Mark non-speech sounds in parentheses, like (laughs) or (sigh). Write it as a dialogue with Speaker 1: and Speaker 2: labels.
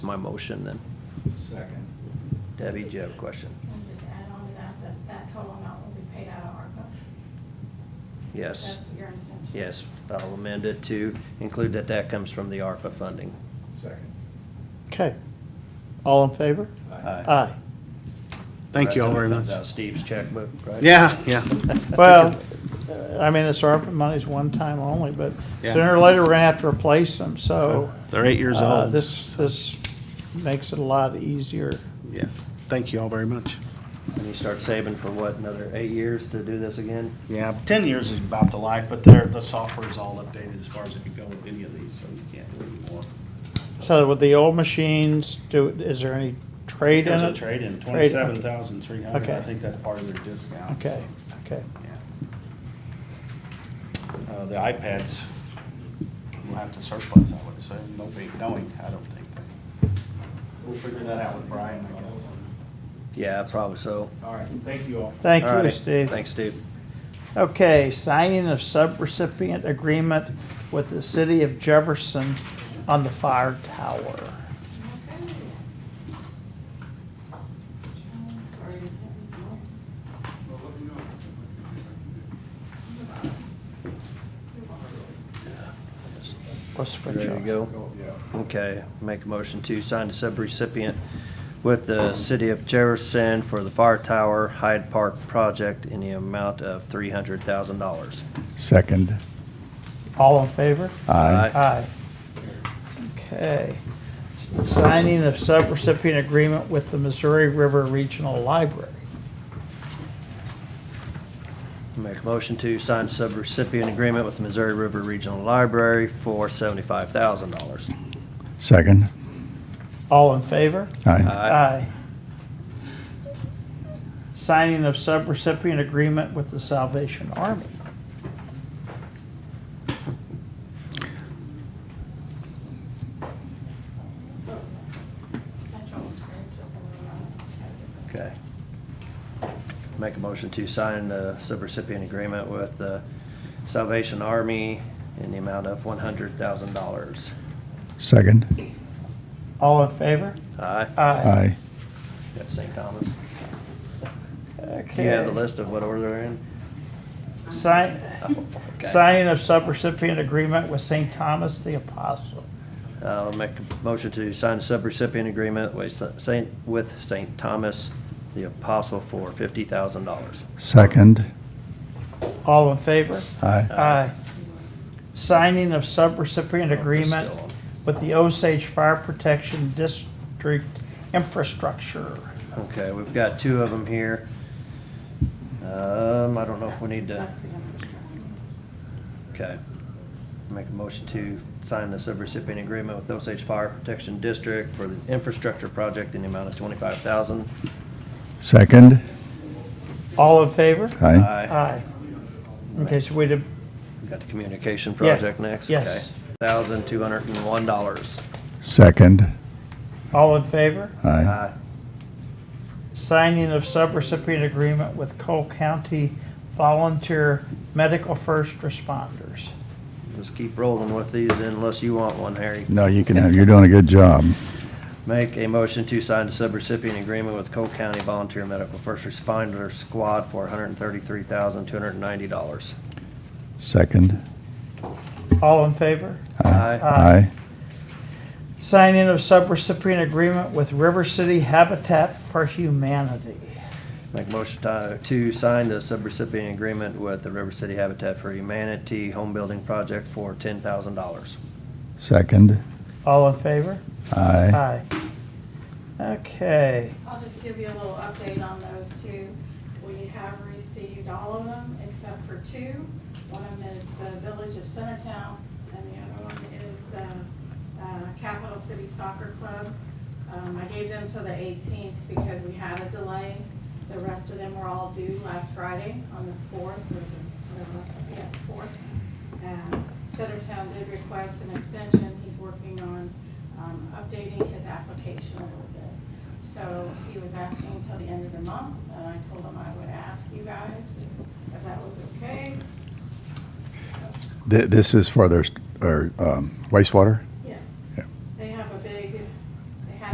Speaker 1: my motion then.
Speaker 2: Second.
Speaker 1: Debbie, do you have a question?
Speaker 3: Can I just add on to that, that that total amount will be paid out of ARPA?
Speaker 1: Yes,
Speaker 3: That's your intention?
Speaker 1: yes, I'll amend it to include that that comes from the ARPA funding.
Speaker 2: Second.
Speaker 4: Okay. All in favor?
Speaker 1: Aye.
Speaker 4: Aye.
Speaker 5: Uh, Thank you all very
Speaker 1: Comes
Speaker 5: much.
Speaker 1: out of Steve's checkbook, right?
Speaker 5: Yeah,
Speaker 1: (laughs)
Speaker 5: yeah.
Speaker 4: Well, uh, I mean, this ARPA money's one time only, but
Speaker 5: Yeah.
Speaker 4: sooner or later, we're gonna have to replace them, so.
Speaker 5: They're eight years
Speaker 4: uh,
Speaker 5: old.
Speaker 4: This, this makes it a lot easier.
Speaker 5: Yes. Thank you all very much.
Speaker 1: And you start saving for what, another eight years to do this again?
Speaker 5: Yeah, ten years is about the life, but they're, the software is all updated as far as it can go with any of these, so you can't do anymore.
Speaker 4: So with the old machines, do, is there any trade in
Speaker 5: There's a
Speaker 4: it?
Speaker 5: trade-in,
Speaker 4: Trade, okay.
Speaker 5: twenty-seven thousand three hundred, I
Speaker 4: Okay.
Speaker 5: think that's part of their discount.
Speaker 4: Okay, okay.
Speaker 5: Yeah. Uh, the iPads, we'll have to surplus, I would say, no big knowing, I don't think. We'll figure that out with Brian, I guess.
Speaker 1: Yeah, probably so.
Speaker 5: All right, thank you all.
Speaker 4: Thank
Speaker 1: All
Speaker 4: you,
Speaker 1: right.
Speaker 4: Steve.
Speaker 1: Thanks, Steve.
Speaker 4: Okay, signing of subrecipient agreement with the city of Jefferson on the fire tower.
Speaker 3: Okay. Sorry, I didn't know.
Speaker 4: Let's switch
Speaker 1: Ready to
Speaker 4: off.
Speaker 1: go?
Speaker 5: Oh,
Speaker 2: Yeah.
Speaker 1: Okay, make a motion to sign the subrecipient with the city of Jefferson for the fire tower Hyde Park project in the amount of three hundred thousand dollars.
Speaker 2: Second.
Speaker 4: All in favor?
Speaker 1: Aye.
Speaker 4: Aye. Okay. Signing of subrecipient agreement with the Missouri River Regional Library.
Speaker 1: Make a motion to sign the subrecipient agreement with the Missouri River Regional Library for seventy-five thousand dollars.
Speaker 2: Second.
Speaker 4: All in favor?
Speaker 2: Aye.
Speaker 4: Signing of subrecipient agreement with the Salvation Army.
Speaker 3: Central Terrace is a little, uh,
Speaker 1: Okay. Make a motion to sign the subrecipient agreement with the Salvation Army in the amount of one hundred thousand dollars.
Speaker 2: Second.
Speaker 4: All in favor?
Speaker 1: Aye?
Speaker 2: Aye.
Speaker 1: Yep, St. Thomas. Do
Speaker 4: Okay.
Speaker 1: you have the list of what order they're in?
Speaker 4: Sign,
Speaker 1: Oh, okay.
Speaker 4: signing of subrecipient agreement with St. Thomas the Apostle.
Speaker 1: I'll make a motion to sign a subrecipient agreement with St., with St. Thomas the Apostle for fifty thousand dollars.
Speaker 2: Second.
Speaker 4: All in favor?
Speaker 2: Aye.
Speaker 4: Aye. Signing of
Speaker 1: Oh,
Speaker 4: subrecipient agreement with the Osage Fire Protection District Infrastructure.
Speaker 1: Okay, we've got two of them here. Um, I don't know if we need to,
Speaker 3: That's the infrastructure.
Speaker 1: okay. Make a motion to sign the subrecipient agreement with Osage Fire Protection District for the infrastructure project in the amount of twenty-five thousand.
Speaker 2: Second.
Speaker 4: All in favor?
Speaker 2: Aye.
Speaker 4: Aye. Okay, so we did,
Speaker 1: We've Got the communication project next?
Speaker 4: yes.
Speaker 1: Thousand two hundred and one dollars.
Speaker 2: Second.
Speaker 4: all in favor?
Speaker 2: Aye.
Speaker 4: Signing of subrecipient agreement with Cole County Volunteer Medical First Responders.
Speaker 1: Just keep rolling with these unless you want one, Harry.
Speaker 2: No, you can have, you're doing a good job.
Speaker 1: Make a motion to sign the subrecipient agreement with Cole County Volunteer Medical First Responder Squad for hundred and thirty-three thousand, two hundred and ninety dollars.
Speaker 2: Second.
Speaker 4: All in favor?
Speaker 1: Aye.
Speaker 2: Aye.
Speaker 4: Signing of subrecipient agreement with River City Habitat for Humanity.
Speaker 1: Make a motion to, to sign the subrecipient agreement with the River City Habitat for Humanity Home Building Project for ten thousand dollars.
Speaker 2: Second.
Speaker 4: All in favor?
Speaker 2: Aye.
Speaker 4: Aye. Okay,
Speaker 3: I'll just give you a little update on those two. We have received all of them except for two. One of them is the Village of Centertown, and the other one is the uh, Capital City Soccer Club. Um, I gave them till the 18th because we had a delay. The rest of them were all due last Friday on the 4th, or the, whatever, it was, yeah, 4th. And Centertown did request an extension. He's working on um, updating his application a little bit. So he was asking until the end of the month, and I told him I would ask you guys if that was okay.
Speaker 2: Th- This is for their, s- or um, wastewater?